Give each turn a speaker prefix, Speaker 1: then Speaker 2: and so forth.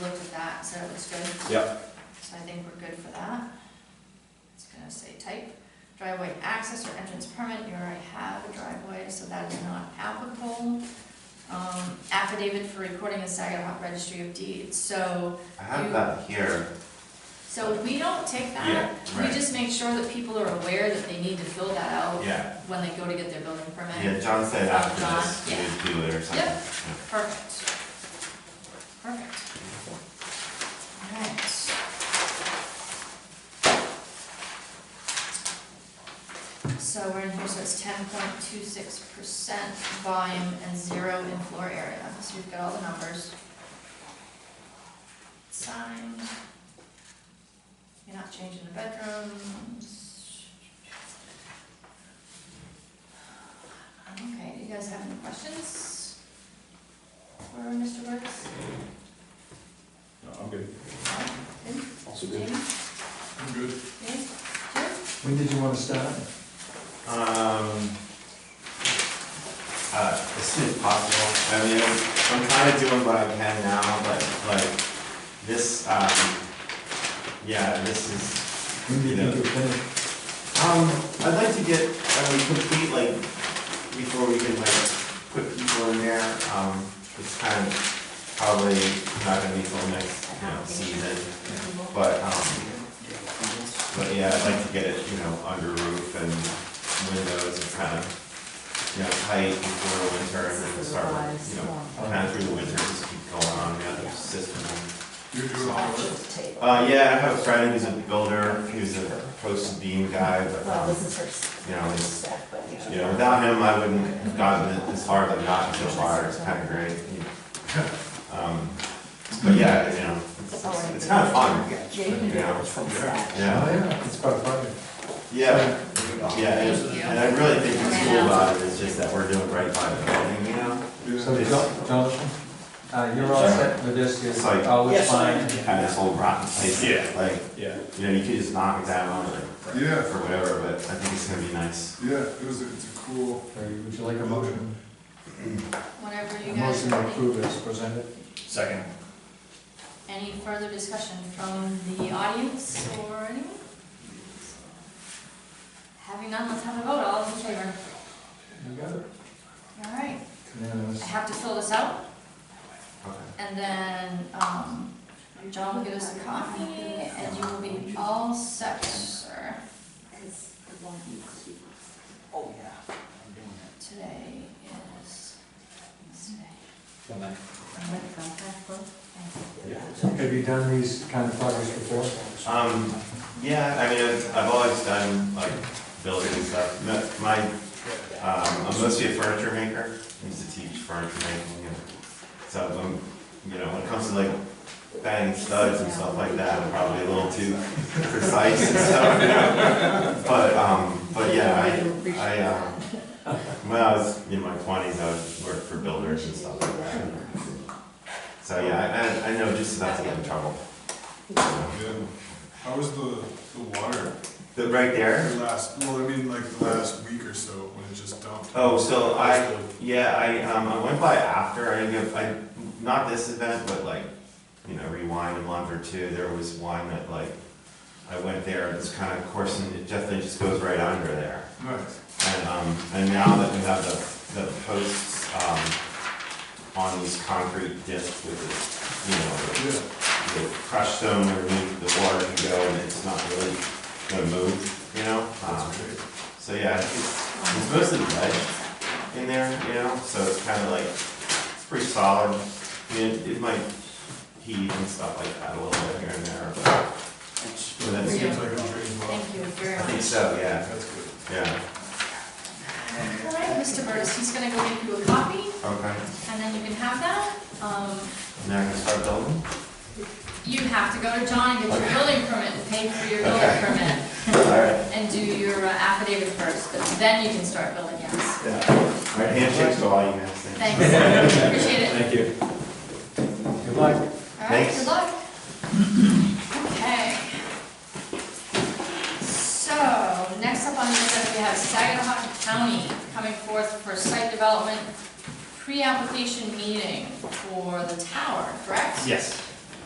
Speaker 1: Matt said it looks good,
Speaker 2: Yep,
Speaker 1: so I think we're good for that. It's gonna say type, driveway access or entrance permit, you already have a driveway, so that is not applicable. Um, affidavit for recording in Saginaw Registry of Deeds, so,
Speaker 3: I have that here.
Speaker 1: so we don't take that.
Speaker 3: Yeah,
Speaker 1: We
Speaker 3: right.
Speaker 1: just make sure that people are aware that they need to fill that out
Speaker 3: Yeah.
Speaker 1: when they go to get their building permit.
Speaker 3: Yeah, John said
Speaker 1: Oh,
Speaker 3: after
Speaker 1: John,
Speaker 3: this, we
Speaker 1: yeah.
Speaker 3: would do it or something.
Speaker 1: Yep. Perfect. Perfect. Alright. So we're in here, so it's ten point two six percent volume and zero in floor area, so we've got all the numbers. Signed. You're not changing the bedrooms. Okay, do you guys have any questions for Mr. Burks?
Speaker 2: no, I'm good.
Speaker 1: Good?
Speaker 2: Also
Speaker 1: Jamie?
Speaker 2: good. I'm good.
Speaker 1: Good?
Speaker 4: When did you want to start?
Speaker 3: Um, uh, as soon as possible, I mean, I'm kind of doing what I can now, but like, this, um, yeah, this is,
Speaker 4: When do you think you'll finish?
Speaker 3: um, I'd like to get, I mean, complete, like, before we can like, put people in there, um, it's kind of probably not gonna be till next, you know, season. But, um, but yeah, I'd like to get it, you know, under roof and windows and kind of, you know, tight before the winter and then start, you know, kind of through the winter, just keep going on the other system.
Speaker 5: You're doing all of it?
Speaker 3: Uh, yeah, I have a friend who's a builder, who's a post beam guy, but,
Speaker 6: Well,
Speaker 3: um,
Speaker 6: this is her s-
Speaker 3: you know, he's,
Speaker 6: stack, but you
Speaker 3: you
Speaker 6: know.
Speaker 3: know, without him, I wouldn't have gotten it as far as I've gotten so far, it's kind of great. you know. Um, But yeah, you know, it's, it's- it's kind of fun,
Speaker 6: Yeah, you can do
Speaker 3: Yeah.
Speaker 6: it from stack.
Speaker 3: yeah.
Speaker 4: Oh, yeah, it's quite fun.
Speaker 3: Yeah, yeah,
Speaker 1: Thank
Speaker 3: and
Speaker 1: you.
Speaker 3: and I really think what's cool about it is just that we're doing right by the building, you know?
Speaker 5: Yeah.
Speaker 4: So, Jo- Jonathan, uh, you're all set with this,
Speaker 3: It's
Speaker 4: you're
Speaker 3: like-
Speaker 4: always
Speaker 6: Yes, I
Speaker 4: fine.
Speaker 3: Kind of this whole rotten place,
Speaker 2: Yeah.
Speaker 3: like,
Speaker 2: Yeah.
Speaker 3: you know, you could just knock it down or,
Speaker 5: Yeah,
Speaker 3: or whatever, but I think it's gonna be nice.
Speaker 5: yeah, it was, a- it's a cool,
Speaker 4: Okay, Would you like a motion?
Speaker 1: Whenever
Speaker 4: A
Speaker 1: you guys.
Speaker 4: motion to approve is presented.
Speaker 2: Second.
Speaker 1: Any further discussion from the audience or anyone? Having none, let's have a vote, all in favor.
Speaker 4: You got it?
Speaker 1: All right, I
Speaker 4: Unanimous.
Speaker 1: have to fill this out,
Speaker 3: Okay.
Speaker 1: and then, um, John will give us a copy, and you will be all set, sir,
Speaker 6: Oh, yeah.
Speaker 1: today is, Wednesday.
Speaker 4: Have you done these kind of projects before?
Speaker 3: Um, yeah, I mean, I've, I've always done like building and stuff. No, My, um, I'm mostly a furniture maker. I used to teach furniture making and so I'm, you know, when it comes to like banging studs and stuff like that, I'm probably a little too precise and stuff, you know? But, um, but yeah, I, I, uh, when I was in my twenties, I worked for builders and stuff like that. So yeah, I, I- I know just enough to get in trouble. you know?
Speaker 5: yeah. How was the, the water,
Speaker 3: The, right there?
Speaker 5: the last, well, I mean, like, the last week or so, when it just dumped?
Speaker 3: Oh, so I,
Speaker 5: How's
Speaker 3: yeah, I, um, I went by after, I didn't get, I, not this event, but like, you know, rewind a month or two, there was one that like, I went there, and it's kind of coursing, it definitely just goes right under there.
Speaker 5: the- Nice,
Speaker 3: And, um, and now that we have the, the posts, um, on these concrete discs with the, you know,
Speaker 5: yeah,
Speaker 3: the crushed stone underneath, the water can go, and it's not really gonna move, you know? Um,
Speaker 5: that's great.
Speaker 3: So yeah, it's, it's mostly ledge, in there, you know, so it's kind of like, it's pretty solid. I mean, it- it might heave and stuff like that a little bit here and there, but but
Speaker 5: It
Speaker 3: that's,
Speaker 5: seems like a dream well.
Speaker 1: Thank you very
Speaker 3: I
Speaker 1: much.
Speaker 3: think so, yeah,
Speaker 5: That's good.
Speaker 3: yeah,
Speaker 1: All right, Mr. Burtis, he's gonna go make you a copy,
Speaker 3: okay.
Speaker 1: and then you can have that, um,
Speaker 3: Now I can start building?
Speaker 1: You have to go to John and get your building permit and pay for your building
Speaker 3: Okay.
Speaker 1: permit
Speaker 3: All right,
Speaker 1: and do your uh, affidavit first, but then you can start building, yes.
Speaker 3: yeah. All right, handshakes to all you guys, thanks.
Speaker 1: Thanks, appreciate it.
Speaker 2: Thank you.
Speaker 4: Good luck.
Speaker 1: All right,
Speaker 3: Thanks.
Speaker 1: good luck. Okay. So, next up on the agenda, we have Saginaw County coming forth for site development pre-application meeting for the tower, correct?
Speaker 2: Yes.